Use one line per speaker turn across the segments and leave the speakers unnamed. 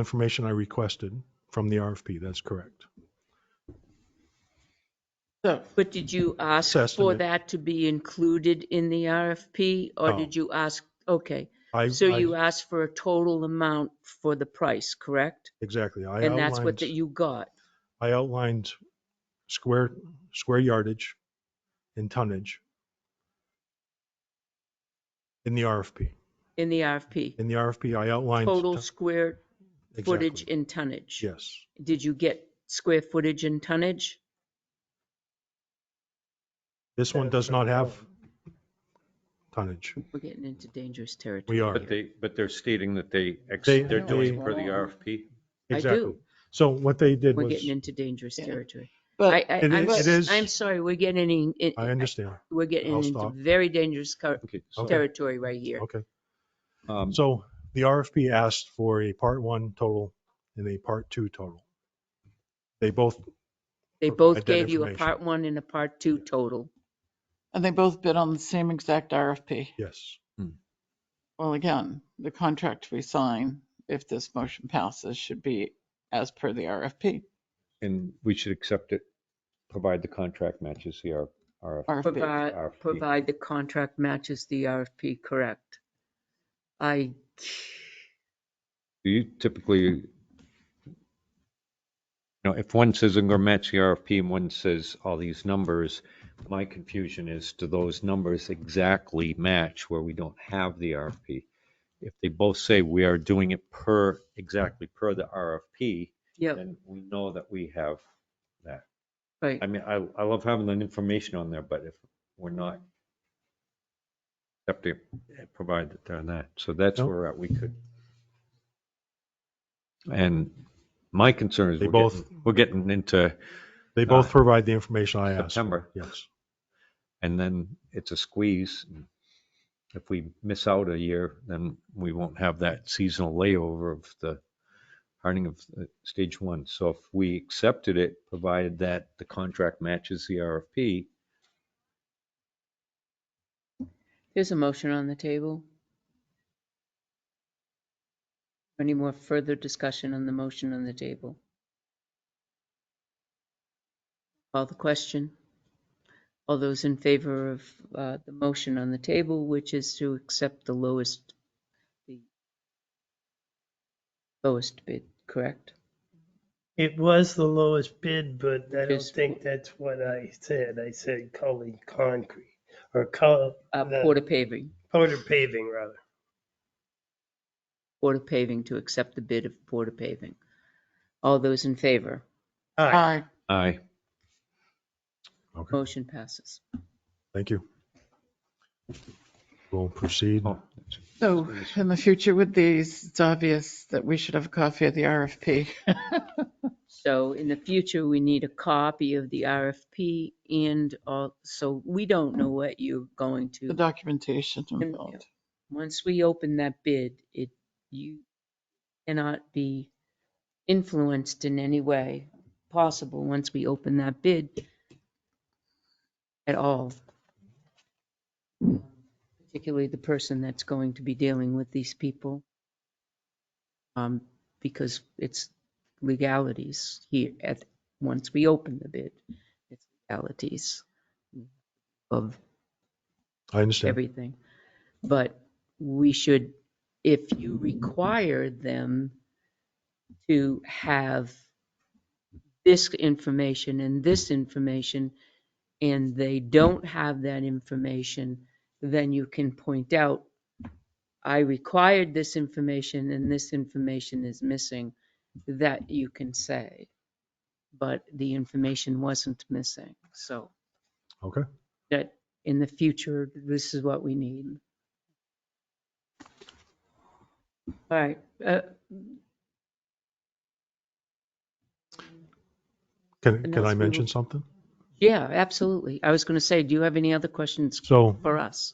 information I requested from the RFP, that's correct.
So,
But did you ask for
estimate.
that to be included in the RFP or
No.
did you ask, okay,
I-
so
I-
you asked for a total amount for the price, correct?
Exactly. I
And that's what
outlined,
that you got.
I outlined square, square yardage and tonnage in the RFP.
in the RFP,
In the RFP, I outlined.
total
ton-
square footage
exactly.
and tonnage.
Yes.
Did you get square footage and tonnage?
This one does not have tonnage.
We're getting into dangerous territory.
We are.
But they, but they're stating that they, ex-
They-
they're doing
they-
for the RFP.
I
Exactly.
do.
So what they did
We're
was,
getting into dangerous
Yeah.
territory. I,
but
I,
It
I'm,
is-
s-
it is-
I'm sorry, we're getting, in-
I understand.
we're getting
I'll
into
stop.
very dangerous co-
Okay.
Okay.
territory right here.
Okay.
Um,
So the RFP asked for a part one total and a part two total. They both,
They
provide
both
that
gave you a
information.
part one and a part two total.
and they both bid on the same exact RFP.
yes,
Well, again, the contract we sign, if this motion passes, should be as per the RFP.
and we should accept it, provide the contract matches the R- RFP.
RFP.
Provide,
RFP.
provide the contract matches the RFP, correct? I,
Do you typically, you know, if one says I'm going to match the RFP and one says all these numbers, my confusion is, do those numbers exactly match where we don't have the RFP? If they both say we are doing it per, exactly per the RFP,
yeah,
then we know that we have that.
right.
I mean, I, I love having that information on there, but if we're not, have to provide that they're not. So that's
Nope.
where we're at. we could. And my concern is
They
we're
both-
getting, we're getting into
they both
Ah.
provide the information I asked. for.
September
Yes,
and then it's a squeeze. If we miss out a year, then we won't have that seasonal layover of the hiring of uh, stage one. So if we accepted it, provided that the contract matches the RFP,
There's a motion on the table. Any more further discussion on the motion on the table? Call the question. All those in favor of uh, the motion on the table, which is to accept the lowest, the lowest bid, correct?
It was the lowest bid, but I don't
Because-
think that's what I said. I said calling concrete or call
Uh,
the-
Porter paving,
Porter paving rather.
Porter paving to accept the bid of Porter paving. All those in favor?
Aye.
Aye.
aye.
okay,
Motion passes.
thank you. We'll proceed.
Oh, that's-
So in the future with these, it's obvious that we should have a copy of the RFP.
So in the future, we need a copy of the RFP and all, so we don't know what you're going
The
to.
documentation involved.
Once we open that bid, it, you cannot be influenced in any way possible once we open that bid at all. Particularly the person that's going to be dealing with these people. Um, because it's legalities here at, once we open the bid, it's legalities of
I understand.
everything. But we should, if you require them to have this information and this information, and they don't have that information, then you can point out, I required this information and this information is missing, that you can say. But the information wasn't missing, so
Okay,
that in the future, this is what we need. All right, uh,
can, can
else
I
we
mention
will-
something?
yeah, absolutely. I was going to say, do you have any other questions
So
for us?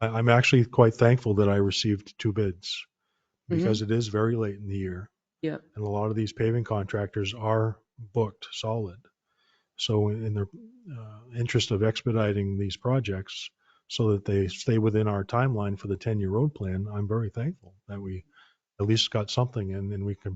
I, I'm actually quite thankful that I received two bids because it is very late in the year.
Yep.
And a lot of these paving contractors are booked solid. So in the uh, interest of expediting these projects so that they stay within our timeline for the 10-year road plan, I'm very thankful that we at least got something and then we can